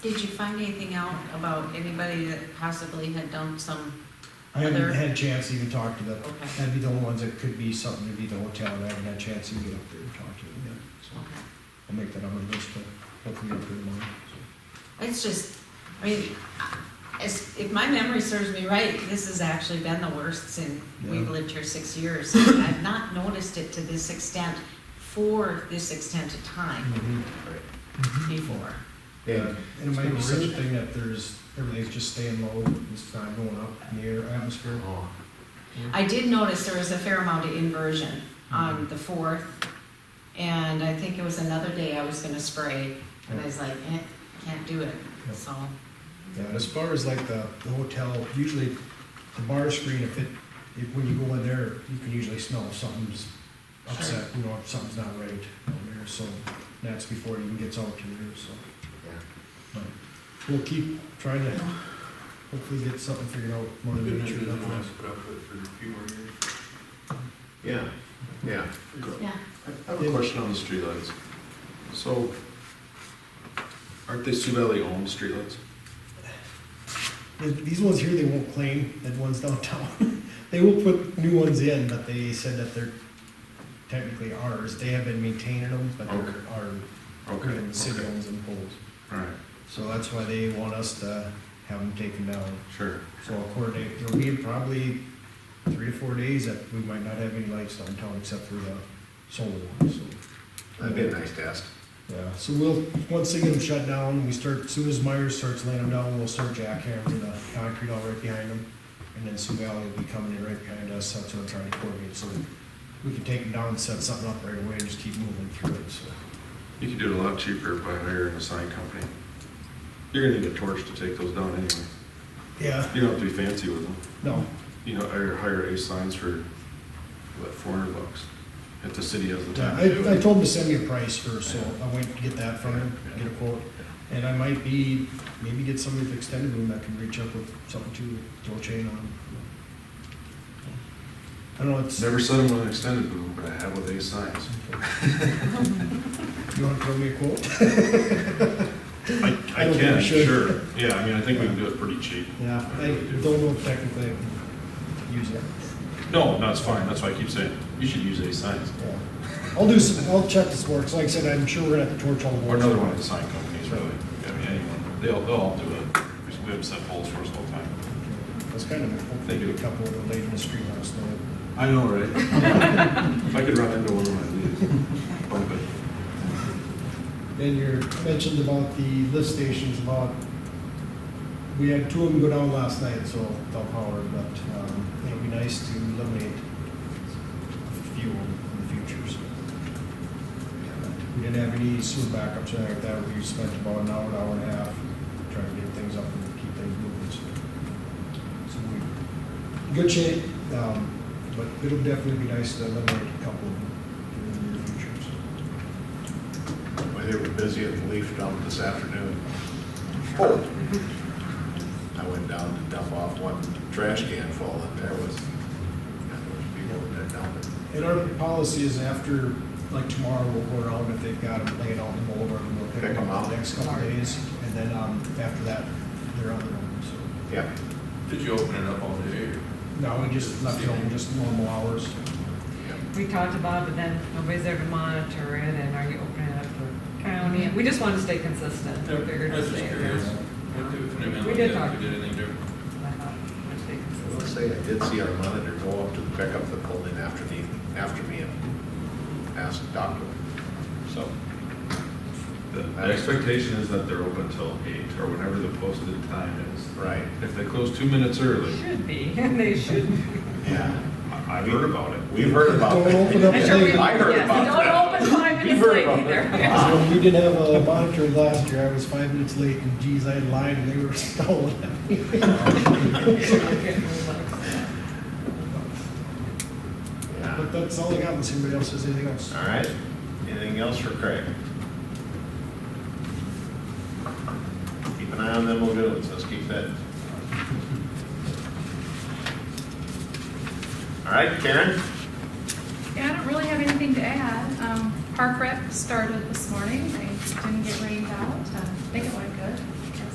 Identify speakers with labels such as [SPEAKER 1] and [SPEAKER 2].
[SPEAKER 1] Did you find anything out about anybody that possibly had done some,
[SPEAKER 2] I haven't
[SPEAKER 1] Other-
[SPEAKER 2] had a chance to even talk to them.
[SPEAKER 1] okay,
[SPEAKER 2] That'd be the only ones that could be something, it'd be the hotel, I haven't had a chance to get up there and talk to them yet. So
[SPEAKER 1] okay.
[SPEAKER 2] I'll make that on my list to hopefully up there tomorrow. so.
[SPEAKER 1] It's just, I mean, as, if my memory serves me right, this has actually been the worst since we've
[SPEAKER 2] Yeah.
[SPEAKER 1] lived here six years. And I've not noticed it to this extent, for this extent of time
[SPEAKER 2] Mhm.
[SPEAKER 1] before.
[SPEAKER 2] Yeah, and it might be such a
[SPEAKER 3] Really?
[SPEAKER 2] thing that there's, everything's just staying low, it's not going up in the air atmosphere.
[SPEAKER 3] Oh,
[SPEAKER 1] I did notice there was a fair amount of inversion
[SPEAKER 2] Mm-hmm.
[SPEAKER 1] on the fourth, and I think it was another day I was gonna spray, and I was like, eh, can't do it,
[SPEAKER 2] Yeah.
[SPEAKER 1] so.
[SPEAKER 2] Yeah, and as far as like the, the hotel, usually the bar screen, if it, if, when you go in there, you can usually smell if something's upset, you know, if something's not right on there, so that's before it even gets out to there, so.
[SPEAKER 3] yeah.
[SPEAKER 2] but We'll keep trying to hopefully get something figured out more than we should have.
[SPEAKER 3] Yeah, yeah.
[SPEAKER 1] Yeah.
[SPEAKER 3] I have a question on the streetlights. So, aren't they Sioux Valley owned streetlights?
[SPEAKER 2] The- These ones here, they won't claim that one's downtown. They will put new ones in, but they said that they're technically ours. They have been maintaining them, but they're
[SPEAKER 3] Okay.
[SPEAKER 2] our
[SPEAKER 3] Okay,
[SPEAKER 2] And the city
[SPEAKER 3] okay,
[SPEAKER 2] owns them poles.
[SPEAKER 3] all right,
[SPEAKER 2] So that's why they want us to have them taken down.
[SPEAKER 3] sure.
[SPEAKER 2] So I'll coordinate, there'll be probably three to four days that we might not have any lights downtown except for the solar ones, so.
[SPEAKER 3] That'd be a nice task.
[SPEAKER 2] Yeah, so we'll, once they get them shut down, we start, soon as Myers starts laying them down, we'll start jackhammering the concrete all right behind them. And then Sioux Valley will be coming in right behind us, that's what I'm trying to coordinate, so we can take them down and set something up right away and just keep moving through it, so.
[SPEAKER 3] You could do it a lot cheaper by hiring a sign company. You're gonna need a torch to take those down anyway.
[SPEAKER 2] Yeah,
[SPEAKER 3] You don't have to be fancy with them.
[SPEAKER 2] no,
[SPEAKER 3] You know, hire, hire ace signs for, what, four hundred bucks? If the city has the time to do
[SPEAKER 2] uh, I, I
[SPEAKER 3] it.
[SPEAKER 2] told him to send me a price first, so I went to get that from him, get a quote. And I might be, maybe get somebody with extended boom that can reach up with something to throw a chain on. I don't know, it's,
[SPEAKER 3] Never said them with an extended boom, but I have with ace signs.
[SPEAKER 2] you wanna throw me a quote?
[SPEAKER 4] I,
[SPEAKER 2] I
[SPEAKER 4] I
[SPEAKER 2] don't think
[SPEAKER 4] can,
[SPEAKER 2] we should.
[SPEAKER 4] sure, yeah, I mean, I think we can do it pretty cheap.
[SPEAKER 2] Yeah, I
[SPEAKER 4] really do.
[SPEAKER 2] don't know if technically I can use it.
[SPEAKER 4] No, no, it's fine, that's why I keep saying, you should use these signs,
[SPEAKER 2] Yeah. I'll do some, I'll check this works, like I said, I'm sure we're gonna have to torch all the
[SPEAKER 4] or
[SPEAKER 2] boards.
[SPEAKER 4] another one of the sign companies, really, I mean, anyone, they'll, they'll all do it, We have them set poles for us all the time.
[SPEAKER 2] That's kind of,
[SPEAKER 4] They
[SPEAKER 2] hopefully
[SPEAKER 4] do.
[SPEAKER 2] a couple of them laid in the street last night.
[SPEAKER 3] I know, right? If I could run into one when I leave. Bump it.
[SPEAKER 2] Then you mentioned about the lift stations, about, we had two of them go down last night, so without power, but, um, it'd be nice to eliminate a few in the future, so. We didn't have any sewer backups or anything like that, we spent about an hour, hour and a half trying to get things up and keep things moving, so. So we, good shape, um, but it'll definitely be nice to eliminate a couple of them in the near future, so.
[SPEAKER 5] Well, they were busy at the leaf dump this afternoon. I went down to dump off one trash can full, and there was, yeah, there was people in there dumping.
[SPEAKER 2] And our policy is after, like tomorrow, we'll go around if they've got them laid out in the mold, or we'll pick them up the next couple of days, and then, um, after that, they're on their own, so.
[SPEAKER 5] Yeah,
[SPEAKER 6] Did you open it up all day or?
[SPEAKER 2] No, we just left it open, just normal hours.
[SPEAKER 5] yeah.
[SPEAKER 7] We talked about it, but then nobody's there to monitor it, and are you opening it up for county? We just wanted to stay consistent. We figured
[SPEAKER 6] I was
[SPEAKER 7] we'd
[SPEAKER 6] just
[SPEAKER 7] stay
[SPEAKER 6] curious.
[SPEAKER 7] around.
[SPEAKER 6] What do- what do you mean,
[SPEAKER 7] We
[SPEAKER 6] like,
[SPEAKER 7] did
[SPEAKER 6] if
[SPEAKER 7] talk.
[SPEAKER 6] We did anything different?
[SPEAKER 7] I thought we'd stay
[SPEAKER 5] I
[SPEAKER 7] consistent.
[SPEAKER 5] will say, I did see our monitor go up to the pickup that pulled in after me, after me and asked Doctor. So,
[SPEAKER 4] The the expectation is that they're open till eight, or whenever the posted time is.
[SPEAKER 5] right,
[SPEAKER 4] If they close two minutes early,
[SPEAKER 7] Should be, they should.
[SPEAKER 5] yeah,
[SPEAKER 4] I- I've heard about it.
[SPEAKER 5] we've heard about that.
[SPEAKER 2] Don't open up
[SPEAKER 7] I'm sure we-
[SPEAKER 2] late.
[SPEAKER 5] I heard
[SPEAKER 7] yes,
[SPEAKER 5] about that.
[SPEAKER 7] Don't open five
[SPEAKER 5] We've
[SPEAKER 7] minutes
[SPEAKER 5] heard
[SPEAKER 7] late
[SPEAKER 5] about
[SPEAKER 7] either.
[SPEAKER 5] that.
[SPEAKER 2] So we did have a monitor last year, I was five minutes late, and geez, I lied, and they were stolen.
[SPEAKER 5] Yeah.
[SPEAKER 2] But that's all I got, unless anybody else has anything else.
[SPEAKER 5] All right, anything else for Craig? Keep an eye on them lagoons, let's keep that. All right, Karen?
[SPEAKER 8] Yeah, I don't really have anything to add. Um, Park rep started this morning. They didn't get rained out. Uh, I think it went good.